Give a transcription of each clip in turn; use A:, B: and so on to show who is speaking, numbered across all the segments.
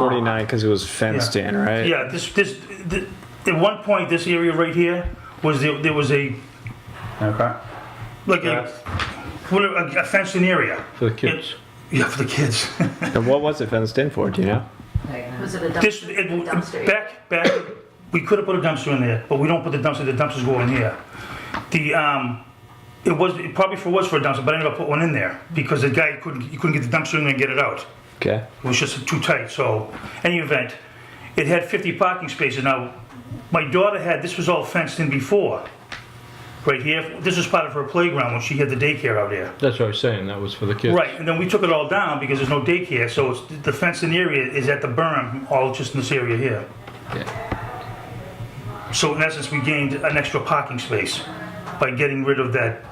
A: 49 because it was fenced in, right?
B: Yeah, this, this, th- at one point, this area right here was, the- there was a,
C: Okay.
B: like a, what a a fenced-in area.
A: For the kids.
B: Yeah, for the kids.
A: And what was it fenced in for? Do you know?
D: Was it a dumpster?
B: This, it,
D: Dumpster.
B: back, back, we could have put a dumpster in there, but we don't put the dumpster, the dumpsters go in here. The, um, it was, it probably for, was for a dumpster, but I never put one in there, because the guy couldn't, he couldn't get the dumpster in there and get it out.
A: Okay.
B: It was just too tight, so, any event, it had 50 parking spaces. Now, my daughter had, this was all fenced in before, right here. This was part of her playground when she had the daycare out there.
E: That's what I was saying, that was for the kids.
B: Right, and then we took it all down because there's no daycare, so it's, the fencing area is at the berm, all just in this area here. So in essence, we gained an extra parking space by getting rid of that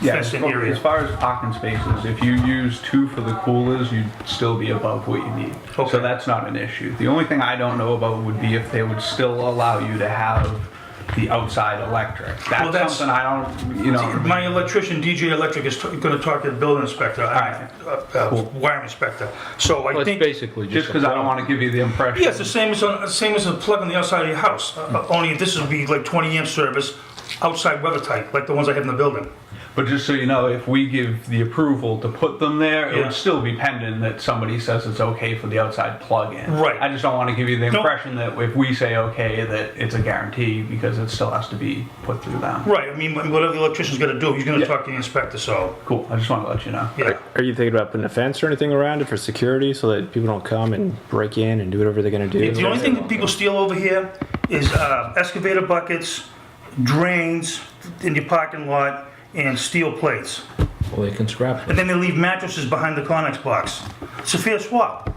C: Yeah, as
B: fencing
C: far,
B: area.
C: as far as parking spaces, if you use two for the coolers, you'd still be above what you need.
B: Okay.
C: So that's not an issue. The only thing I don't know about would be if they would still allow you to have the outside electric. That's,
B: Well, that's-
C: something I don't, you know.
B: My electrician, DJ Electric, is t- gonna talk to the building inspector, uh, uh,
C: Cool.
B: wire inspector, so I
E: Well, it's
B: think.
E: basically just.
C: just because I don't want to give you the impression.
B: Yeah, it's the same as, on- same as a plug on the outside of your house, uh, only this would be like 20 amp service, outside weather tight, like the ones I have in the building.
C: But just so you know, if we give the approval to put them there, it
B: Yeah.
C: would still be pending that somebody says it's okay for the outside plug-in.
B: Right.
C: I just don't want to give you the
B: No.
C: impression that if we say okay, that it's a guarantee because it still has to be put through them.
B: Right, I mean, whatever the electrician's gonna do, he's gonna
C: Yeah.
B: talk to the inspector, so,
C: Cool. I just want to let you know.
B: yeah.
A: Are you thinking about putting a fence or anything around it for security so that people don't come and break in and do whatever they're going to do?
B: The only thing that people steal over here is uh, excavator buckets, drains in your parking lot, and steel plates.
E: Well, they can scrap it.
B: And then they leave mattresses behind the Conex box. It's a fair swap.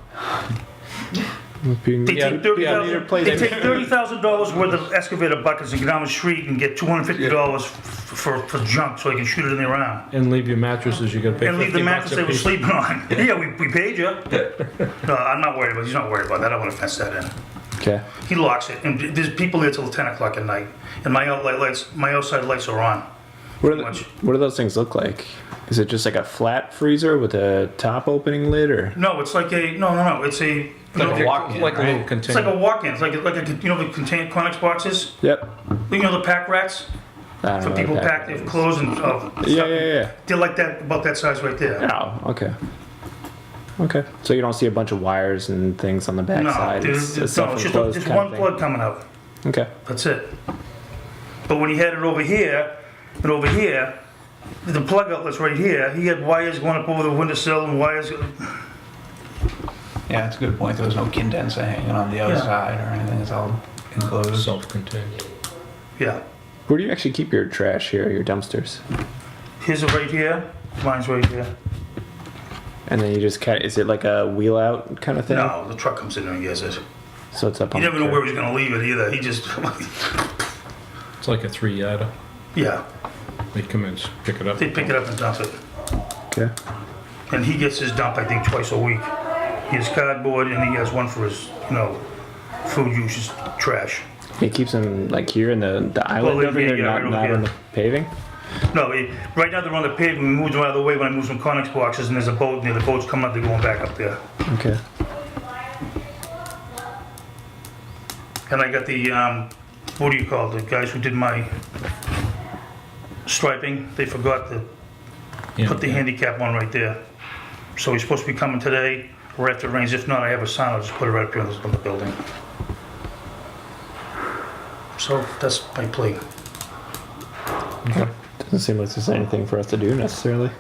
B: They
A: Yeah.
B: take
A: yeah, neither
B: $30,000
A: place-
B: they take $30,000 worth of excavator buckets and get down the street and get $250 f- for for junk so they can shoot it in their arm.
E: And leave your mattresses, you're gonna pay
B: And leave the
E: fifty bucks
B: mattress they
E: a
B: were
E: piece.
B: sleeping on. Yeah, we we paid you. No, I'm not worried about, he's not worried about that. I want to fence that in.
A: Okay.
B: He locks it, and there's people there till ten o'clock at night, and my outlight lights, my outside lights are on.
A: What are, the-
B: Much.
A: what do those things look like? Is it just like a flat freezer with a top opening lid or?
B: No, it's like a no, no, no. It's a you know,
C: a walk-in,
E: Like a
B: It's
E: little
C: right?
B: like
E: container.
B: a walk-in. It's like like a, you know the contained Conex boxes.
A: Yep.
B: You know the pack rats
A: I don't know
B: for
A: what
B: people
A: that
B: pack their
A: is.
B: clothes and uh,
A: Yeah,
B: stuff.
A: yeah,
B: They're like that about that size right there.
A: yeah. Oh, okay. Okay. So you don't see a bunch of wires and things on the back
B: No,
A: side.
B: there's,
A: a
B: there's, no, it's just,
A: self-enclosed
B: just
A: kind of
B: one
A: thing.
B: plug coming out.
A: Okay.
B: That's it. But when he had it over here, and over here, the plug outlet's right here. He had wires going up over the windowsill and wires
C: Yeah, it's a good point. There was no condenser hanging on the other
B: Yeah.
C: side or anything. It's all enclosed.
E: Self-contained.
B: Yeah.
A: Where do you actually keep your trash here, your dumpsters?
B: His are right here. Mine's right here.
A: And then you just kind of, is it like a wheel out kind of thing?
B: No, the truck comes in there and gets it.
A: So it's up
B: You
A: on
B: never
A: the
B: know
A: curb.
B: where he's gonna leave it either. He just,
E: It's like a three-yarder.
B: yeah,
E: They come in, pick it up.
B: they pick it up and dump it.
A: Okay.
B: And he gets his dump, I think, twice a week. He has cardboard and he has one for his, you know, food uses trash.
A: He keeps them like here in the, the island
B: yeah,
A: over here,
B: yeah,
A: not,
B: right over
A: not
B: here.
A: on the paving?
B: No, he, right now they're on the pavement. We moved them out of the way when I moved some Conex boxes and there's a boat near the boat's coming up. They're going back up there.
A: Okay.
B: And I got the, um, what do you call it, the guys who did my striping? They forgot the
E: Yeah.
B: Put the handicap one right there. So he's supposed to be coming today, or after it rains. If not, I have a sign, I'll just put it right up here on the building. So that's my plea.
A: Doesn't seem like there's anything for us to do necessarily.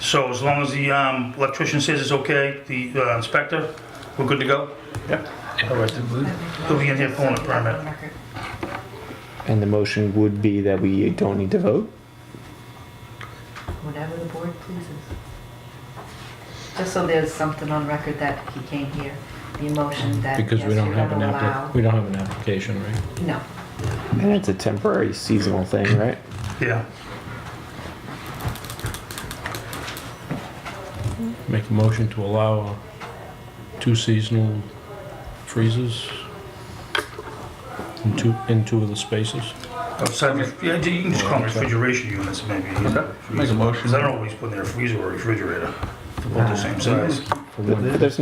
B: So as long as the um, electrician says it's okay, the uh, inspector, we're good to go? Yep. All right, he'll be in here pulling a permit.
A: And the motion would be that we don't need to vote?
D: Whatever the board pleases. Just so there's something on record that he came here, the emotion that, yes,
E: Because
D: you're
E: we don't
D: gonna
E: have an app,
D: allow.
E: we don't have an application, right?
D: No,
A: And it's a temporary seasonal thing, right?
B: Yeah.
E: Make a motion to allow uh, two seasonal freezers in two, in two of the spaces.
B: Outside, ref- yeah, you can just call them refrigeration units, maybe.
C: Make a motion. Ah.
B: Because I don't know what he's putting in a freezer or refrigerator. they're both the same size.
A: There's